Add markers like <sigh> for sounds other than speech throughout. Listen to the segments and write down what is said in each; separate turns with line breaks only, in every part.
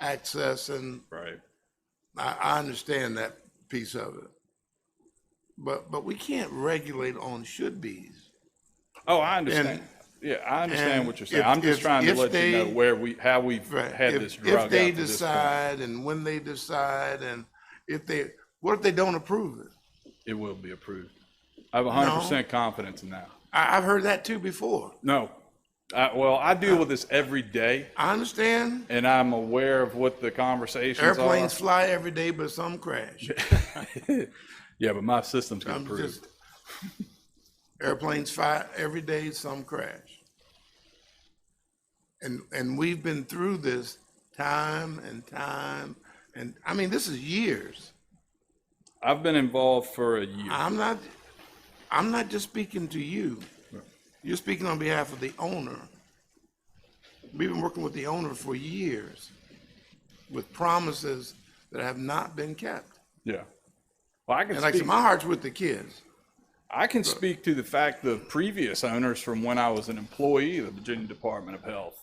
access and
Right.
I, I understand that piece of it. But, but we can't regulate on should be's.
Oh, I understand. Yeah, I understand
and
what you're saying.
if-
I'm just
if-
trying to
if
let you know
they-
where we, how we've
Right.
had
If-
this drug out
If they
to this point.
decide and when they decide and if they, what if they don't approve it?
It will be approved. I have hundred percent confidence in that.
I, I've heard that too before.
No. I, well, I deal with this every day
I understand
and I'm aware of what the conversations are.
airplanes fly every day, but some crash.
<laughs> Yeah, but my system's
I'm
getting
just,
approved.
airplanes fly every day, some crash. And, and we've been through this time and time, and, I mean, this is years.
I've been involved for a year.
I'm not, I'm not just speaking to you. You're speaking on behalf of the owner. We've been working with the owner for years with promises that have not been kept.
Yeah. Well, I can
And like, I said,
speak,
my heart's with the kids.
I can speak to the fact the previous owners from when I was an employee of the Virginia Department of Health.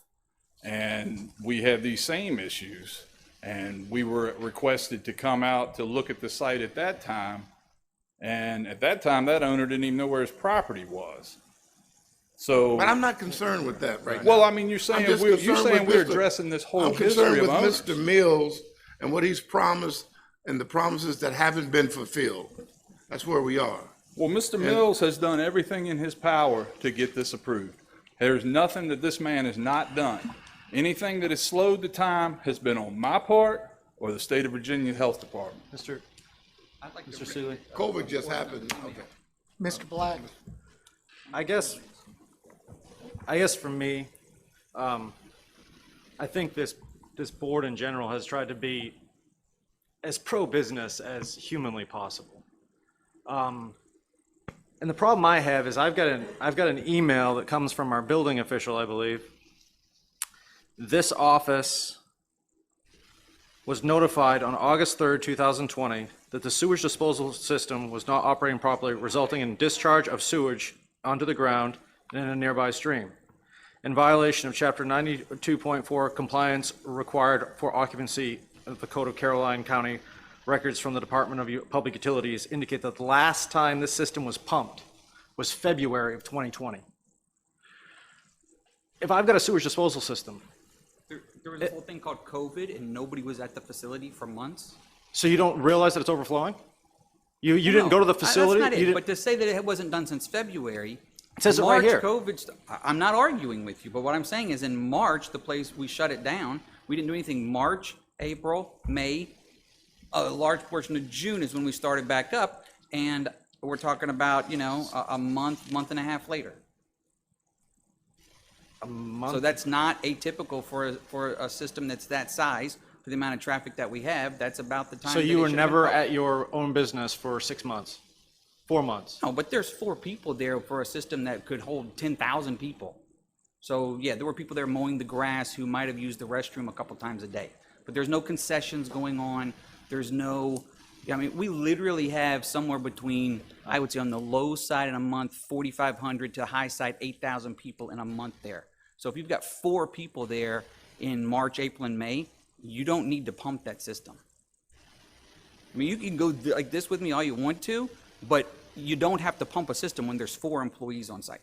And we had these same issues. And we were requested to come out to look at the site at that time. And at that time, that owner didn't even know where his property was. So,
But I'm not concerned with that right now.
well, I mean, you're saying,
just
we're- you're
concerned
saying
with
we're
Mr.
addressing this whole
I'm
history
concerned
of
with
owners.
Mr. Mills and what he's promised and the promises that haven't been fulfilled. That's where we are.
Well, Mr. Mills has done everything in his power to get this approved. There's nothing that this man has not done. Anything that has slowed the time has been on my part or the state of Virginia Health Department.
Mr. I'd like Mr. Seeley,
COVID just happened. Okay.
Mr. Black,
I guess, I guess for me, um, I think this, this board in general has tried to be as pro-business as humanly possible. Um, and the problem I have is I've got an, I've got an email that comes from our building official, I believe. This office was notified on August 3rd, 2020, that the sewage disposal system was not operating properly, resulting in discharge of sewage onto the ground and in a nearby stream, in violation of Chapter 92.4 compliance required for occupancy of the Code of Caroline County. Records from the Department of U- Public Utilities indicate that the last time this system was pumped was February of 2020. If I've got a sewage disposal system,
There, there was a whole thing called COVID, and nobody was at the facility for months.
So you don't realize that it's overflowing? You, you didn't
No,
go to the
I-
facility?
That's not
You
it.
didn't-
But to say that it wasn't done since February.
It says it right
March,
here.
COVID. st- I- I'm not arguing with you, but what I'm saying is, in March, the place we shut it down. We didn't do anything. March, April, May, a large portion of June is when we started back up, and we're talking about you know a, a month, month and a half later. So that's not atypical for a, for a system that's that size, for the amount of traffic that we have. That's about the time.
So
that
you
it
were
should have
never
been
at your own business for six months, four months?
No, but there's four people there for a system that could hold ten thousand people. So yeah, there were people there mowing the grass who might have used the restroom a couple times a day. But there's no concessions going on. There's no, I mean, we literally have somewhere between, I would say on the low side in a month, forty-five hundred to high side, eight thousand people in a month there. So if you've got four people there in March, April, and May, you don't need to pump that system. I mean, you can go th- like this with me all you want to, but you don't have to pump a system when there's four employees on site.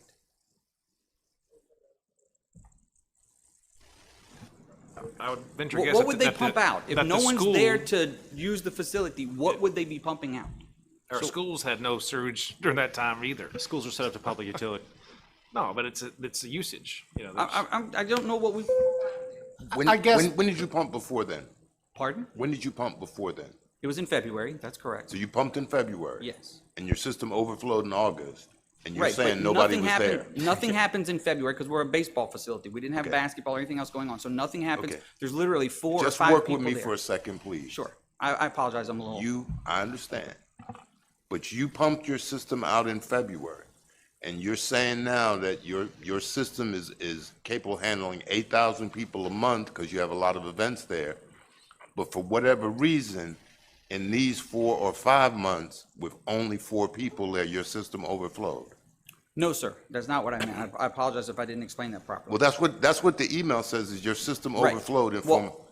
I would venture
What,
guess.
what
that
would
the-
they
that
pump
the-
out? If
that
no
the
one's
school-
there to use the facility, what would they be pumping out?
Our schools had no sewage during that time either.
Schools are set up to public utility.
No, but it's a, it's a usage. You know,
I,
there's-
I, I'm- I don't know what we,
When,
I guess-
when, when did you pump before then?
pardon?
When did you pump before then?
It was in February, that's correct.
So you pumped in February.
Yes.
And your system overflowed in August, and you're
Right, but
saying nobody
nothing
was
happened-
there. <laughs>
Nothing happens in February because we're a baseball facility. We didn't have basketball or anything else going on, so nothing happens.
Okay.
There's literally four or
Just
five
work
people
with me for
there.
a second, please.
Sure, I, I apologize, I'm a little.
You, I understand, but you pumped your system out in February, and you're saying now that your, your system is, is capable of handling eight thousand people a month, because you have a lot of events there. But for whatever reason, in these four or five months, with only four people there, your system overflowed.
No, sir, that's not what I meant. I- I apologize if I didn't explain that properly.
Well, that's what, that's what the email says, is your system
Right.
overflowed and
Well,
from